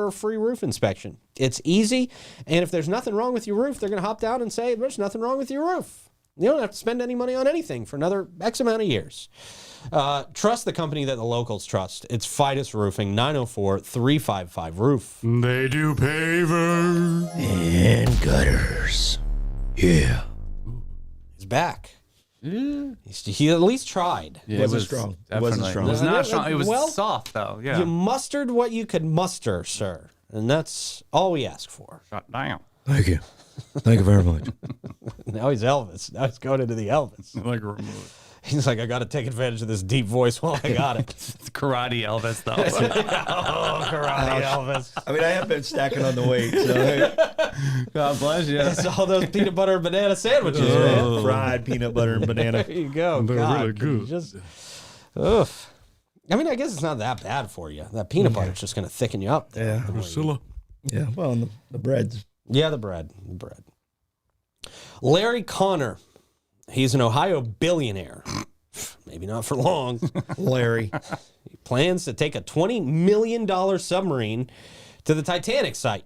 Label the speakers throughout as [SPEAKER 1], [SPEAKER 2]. [SPEAKER 1] for a free roof inspection. It's easy, and if there's nothing wrong with your roof, they're going to hop down and say there's nothing wrong with your roof. You don't have to spend any money on anything for another X amount of years. Uh, trust the company that the locals trust. It's Fidus Roofing, 904 355 Roof.
[SPEAKER 2] They do pavers.
[SPEAKER 3] And gutters. Yeah.
[SPEAKER 1] He's back. He's- He at least tried.
[SPEAKER 3] it wasn't strong. It wasn't
[SPEAKER 4] definitely-
[SPEAKER 3] strong.
[SPEAKER 4] It was not
[SPEAKER 1] Well,
[SPEAKER 4] strong. It was
[SPEAKER 1] well,
[SPEAKER 4] soft though.
[SPEAKER 1] You
[SPEAKER 4] Yeah.
[SPEAKER 1] mustered what you could muster, sir. And that's all we ask for.
[SPEAKER 4] Shut down.
[SPEAKER 3] Thank you. Thank you very much.
[SPEAKER 1] Now he's Elvis. Now he's going into the Elvis.
[SPEAKER 4] Like remove.
[SPEAKER 1] He's like, I got to take advantage of this deep voice while I got it.
[SPEAKER 4] It's karate Elvis though.
[SPEAKER 1] oh, karate Elvis.
[SPEAKER 3] I mean, I have been stacking on the weight. So hey. God bless you. Oh.
[SPEAKER 1] It's all those peanut butter and banana sandwiches, man.
[SPEAKER 3] Yeah, fried peanut butter and banana.
[SPEAKER 1] There you go.
[SPEAKER 2] They're
[SPEAKER 1] God,
[SPEAKER 2] really
[SPEAKER 1] can you
[SPEAKER 2] good.
[SPEAKER 1] Just, oof. I mean, I guess it's not that bad for you. That peanut butter's just going to thicken you up.
[SPEAKER 3] Yeah.
[SPEAKER 2] Priscilla.
[SPEAKER 3] Yeah. Well, and the, the breads.
[SPEAKER 1] Yeah, the bread. The bread. Larry Connor. He's an Ohio billionaire. Maybe not for long.
[SPEAKER 3] Larry.
[SPEAKER 1] plans to take a $20 million submarine to the Titanic site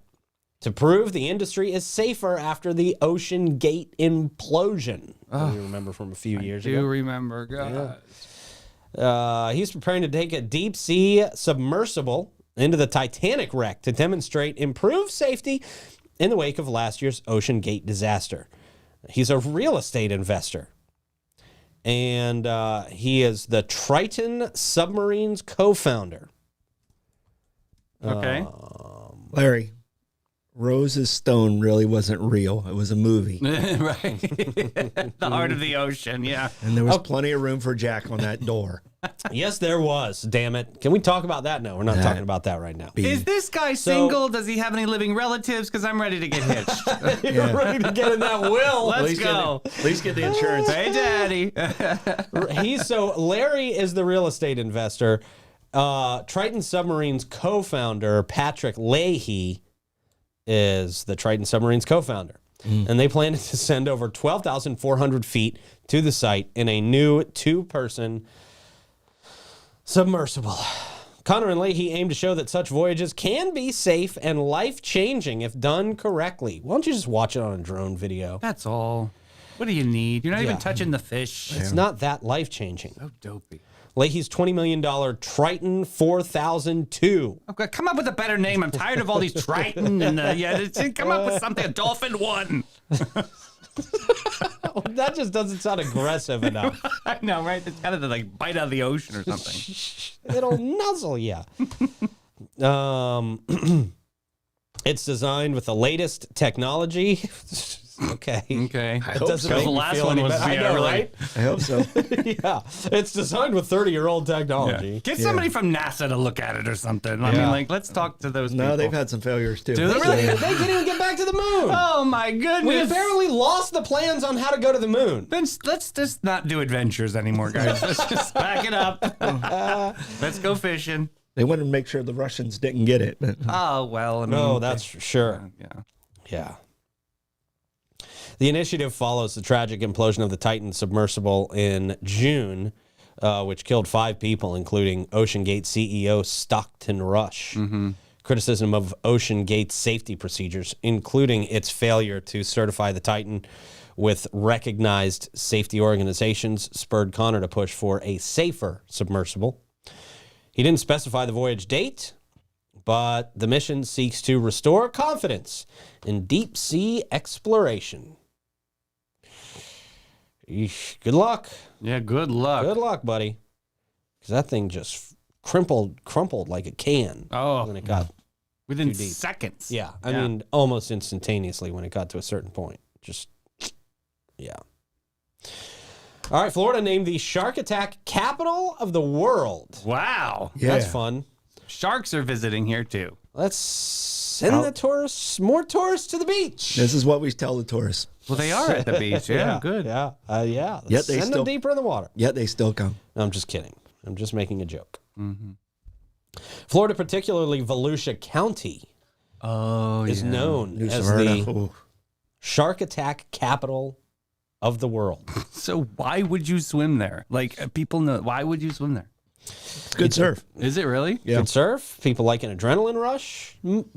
[SPEAKER 1] to prove the industry is safer after the Ocean Gate implosion. you remember from a few years
[SPEAKER 4] Do
[SPEAKER 1] ago.
[SPEAKER 4] remember, God.
[SPEAKER 1] Uh, he's preparing to take a deep sea submersible into the Titanic wreck to demonstrate improved safety in the wake of last year's Ocean Gate disaster. He's a real estate investor. And uh, he is the Triton Submarines co founder.
[SPEAKER 4] Okay.
[SPEAKER 3] Larry. Rose's stone really wasn't real. It was a movie.
[SPEAKER 4] right. the heart of the ocean. Yeah.
[SPEAKER 3] And there was plenty of room for Jack on that door.
[SPEAKER 1] Yes, there was. Damn it. Can we talk about that? No, we're not talking about that right now.
[SPEAKER 4] Is this guy single? Does he have any living relatives? Because I'm ready to get hitched.
[SPEAKER 1] You're ready to get in that will.
[SPEAKER 4] Let's go.
[SPEAKER 3] At least get the insurance.
[SPEAKER 4] Hey, daddy.
[SPEAKER 1] He's so Larry is the real estate investor. Uh, Triton Submarines co-founder Patrick Leahy is the Triton Submarines co-founder, and they plan to send over twelve thousand four hundred feet to the site in a new two-person submersible. Connor and Leahy aim to show that such voyages can be safe and life-changing if done correctly. Why don't you just watch it on a drone video?
[SPEAKER 4] That's all. What do you need? You're not
[SPEAKER 1] Yeah.
[SPEAKER 4] even touching the fish.
[SPEAKER 1] It's not that life-changing.
[SPEAKER 4] So dopey.
[SPEAKER 1] Leahy's $20 million Triton 4002.
[SPEAKER 4] Okay, Oh, come up with a better name. I'm tired of all these Triton and uh, yeah. it's- Come up with something. A dolphin one.
[SPEAKER 1] That just doesn't sound aggressive enough.
[SPEAKER 4] I know, right? It's kind of like bite out of the ocean or something.
[SPEAKER 1] It'll nuzzle you. Um, it's designed with the latest technology. okay.
[SPEAKER 4] Okay.
[SPEAKER 1] It doesn't
[SPEAKER 3] so.
[SPEAKER 1] make
[SPEAKER 4] The
[SPEAKER 1] me
[SPEAKER 4] last
[SPEAKER 1] feel
[SPEAKER 4] one
[SPEAKER 1] any
[SPEAKER 4] was
[SPEAKER 1] better. I
[SPEAKER 4] yeah,
[SPEAKER 1] know,
[SPEAKER 4] really.
[SPEAKER 1] right?
[SPEAKER 3] I hope so.
[SPEAKER 1] yeah. It's designed with 30 year old technology.
[SPEAKER 4] Get somebody from NASA to look at it or something. I
[SPEAKER 1] Yeah.
[SPEAKER 4] mean, like, let's talk to those
[SPEAKER 3] No,
[SPEAKER 4] people.
[SPEAKER 3] they've had some failures too.
[SPEAKER 4] Do they really?
[SPEAKER 1] They can't even get back to the moon.
[SPEAKER 4] Oh my goodness!
[SPEAKER 1] We apparently lost the plans on how to go to the moon.
[SPEAKER 4] Then s- let's just not do adventures anymore, guys. let's just back it up. let's go fishing.
[SPEAKER 3] They wanted to make sure the Russians didn't get it. But
[SPEAKER 4] Oh well. I mean,
[SPEAKER 1] No, that's for sure.
[SPEAKER 4] yeah.
[SPEAKER 1] Yeah. The initiative follows the tragic implosion of the Titan submersible in June, uh, which killed five people, including Ocean Gate CEO Stockton Rush. Criticism of Ocean Gate safety procedures, including its failure to certify the Titan with recognized safety organizations, spurred Connor to push for a safer submersible. He didn't specify the voyage date, but the mission seeks to restore confidence in deep sea exploration. Eesh, good luck.
[SPEAKER 4] Yeah. Good luck.
[SPEAKER 1] Good luck, buddy. Because that thing just crumpled, crumpled like a can when
[SPEAKER 4] Oh,
[SPEAKER 1] it got,
[SPEAKER 4] within
[SPEAKER 1] deep.
[SPEAKER 4] seconds.
[SPEAKER 1] yeah, I
[SPEAKER 4] Yeah.
[SPEAKER 1] mean, almost instantaneously when it got to a certain point. Just, yeah. All right, Florida named the shark attack capital of the world.
[SPEAKER 4] Wow.
[SPEAKER 1] That's fun.
[SPEAKER 4] Sharks are visiting here too.
[SPEAKER 1] Let's send the tourists, more tourists to the beach.
[SPEAKER 3] This is what we tell the tourists.
[SPEAKER 4] Well, they are at the beach. Yeah. good.
[SPEAKER 1] Yeah, uh, yeah. Let's
[SPEAKER 3] Yet they
[SPEAKER 1] send them
[SPEAKER 3] still-
[SPEAKER 1] deeper in the water.
[SPEAKER 3] Yet they still come.
[SPEAKER 1] No, I'm just kidding. I'm just making a joke.
[SPEAKER 3] Mm-hmm.
[SPEAKER 1] Florida, particularly Volusia County,
[SPEAKER 4] Oh,
[SPEAKER 1] is known
[SPEAKER 3] New
[SPEAKER 1] as
[SPEAKER 3] Smyrna.
[SPEAKER 1] the
[SPEAKER 3] Ooh.
[SPEAKER 1] shark attack capital of the world.
[SPEAKER 4] So why would you swim there? Like uh, people know. Why would you swim there?
[SPEAKER 3] It's good surf.
[SPEAKER 4] Is it really?
[SPEAKER 3] Yeah.
[SPEAKER 1] Good surf. People like an adrenaline rush. M-